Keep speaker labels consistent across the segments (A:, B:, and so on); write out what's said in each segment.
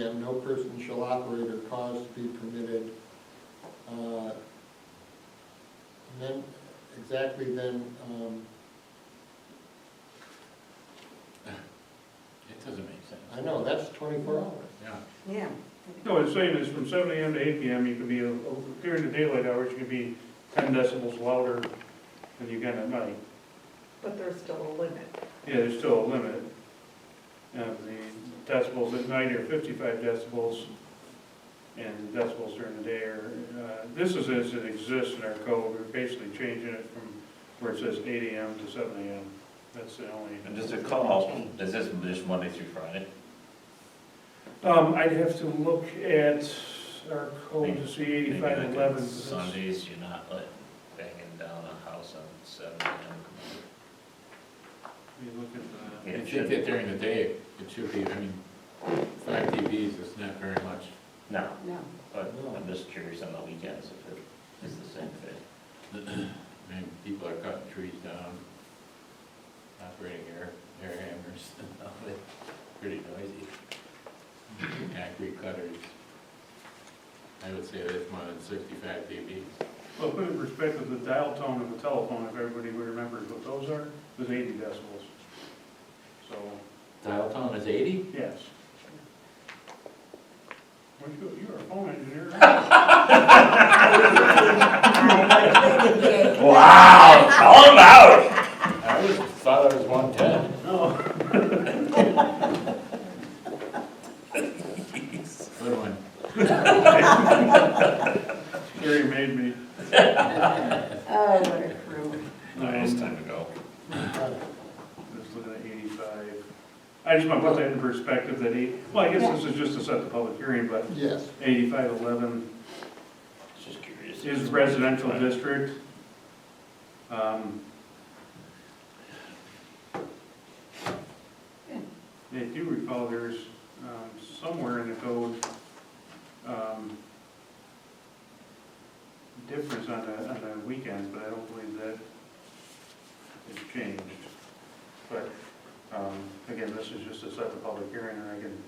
A: a.m., no person shall operate or cause to be permitted. Uh, And then, exactly then, um,
B: It doesn't make sense.
A: I know, that's twenty-four hours.
B: Yeah.
C: Yeah.
D: No, it's saying is from seven AM to eight PM, you can be, uh, during the daylight hours, you can be ten decibels louder than you can at night.
C: But there's still a limit.
D: Yeah, there's still a limit. Uh, the decibels at night are fifty-five decibels, and decibels during the day are, uh, this is as it exists in our code, we're basically changing it from where it says eight AM to seven AM. That's the only.
E: And does it come out, is this just Monday through Friday?
D: Um, I'd have to look at our code to see
E: Maybe
D: eighty-five
E: like on
D: eleven.
E: Sundays, you're not like banging down a house on seven AM.
D: Let me look at
B: I
E: Yeah, it
B: think
E: should-
B: that during the day, it should be, I mean, five TVs is not very much.
E: No,
C: No.
E: but I'm just curious on the weekends if it is the same thing.
B: I mean, people are cutting trees down, operating air, air hammers, and all that. pretty noisy. Concrete cutters. I would say that's more than sixty-five dB.
D: that. Well, put in perspective, the dial tone of the telephone, if everybody remembers what those are, was eighty decibels. So,
B: Dial tone is eighty?
D: yes. Weren't you, you were a phone engineer?
E: Wow, call him out!
B: I always thought I was one ten.
D: No.
B: Good one.
D: Gary made me.
C: Oh, what a crew.
D: um,
E: It's time to go.
A: Uh,
D: Just looking at eighty-five. I just want to put that in perspective that eight, well, I guess this is just to set the public hearing, but
A: Yes,
D: eighty-five eleven
E: Just curious.
D: is residential district. Um, I do recall there's um, somewhere in the code, um, difference on the, on the weekends, but I don't believe that has changed. But, um, again, this is just a set the public hearing, and I can.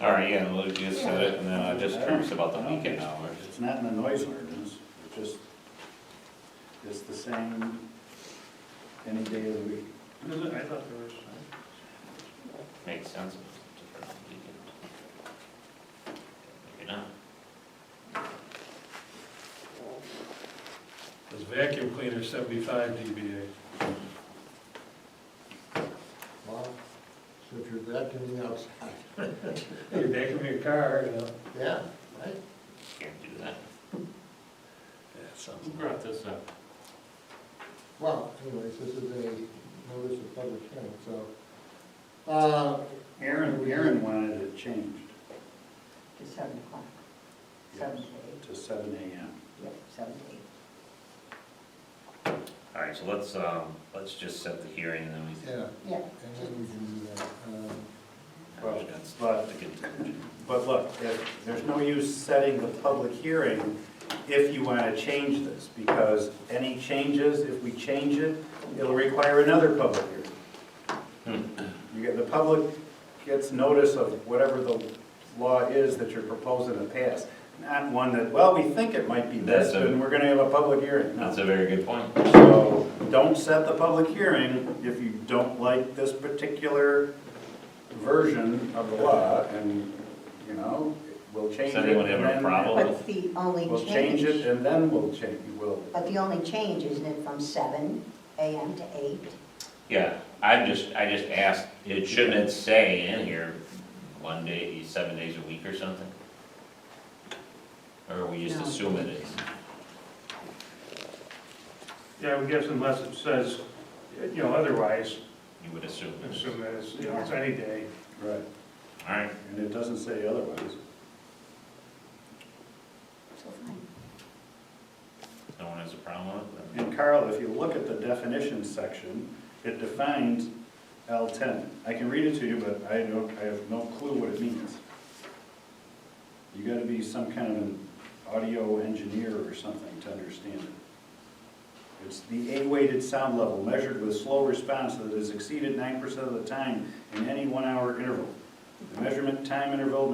E: All right, yeah, we'll just set it, and then I'm just curious about the weekend hours.
F: It's not in the noise ordinance, it's just, it's the same any day of the week.
D: I thought there was,
E: Makes sense. if it's different on the weekend. Maybe not.
G: Is vacuum cleaner seventy-five dBA?
A: well, so if you're vacuuming outside,
G: You're vacuuming your car, you know?
A: yeah, right?
E: Can't do that.
B: Who brought this up?
A: Well, anyways, this is a notice of public hearing, so. Uh,
F: Aaron, Aaron wanted it changed
C: To seven o'clock. Seven to eight.
F: to seven AM.
C: Yep, seven to eight.
E: All right, so let's, um, let's just set the hearing, and then we
A: yeah,
C: Yeah.
A: and then we can do that. Um,
F: Well,
E: But
F: but- But look, there- there's no use setting the public hearing if you want to change this, because any changes, if we change it, it'll require another public hearing. You get, the public gets notice of whatever the law is that you're proposing to pass, not one that, well, we think it might be this,
E: That's a-
F: and we're going to have a public hearing. No.
E: That's a very good point.
F: So don't set the public hearing if you don't like this particular version of the law, and, you know, we'll change it.
E: Does anyone have a
F: and then-
E: problem?
H: But the only
F: We'll change it,
H: change,
F: and then we'll change, we'll,
H: but the only change, isn't it, from seven AM to eight?
E: Yeah, I'm just, I just asked, it shouldn't it say in here, one day, seven days a week or something? Or we just
C: No.
E: assume it is?
D: yeah, I would guess unless it says, you know, otherwise,
E: You would assume it is.
D: assume that it's, you know, it's any day.
F: right,
E: All right,
F: and it doesn't say otherwise.
H: So fine.
E: no one has a problem with it? then?
F: And Carl, if you look at the definition section, it defines L ten. I can read it to you, but I don't, I have no clue what it means. You gotta be some kind of an audio engineer or something to understand it. It's the A-weighted sound level measured with slow response that is exceeded nine percent of the time in any one-hour interval. The measurement time interval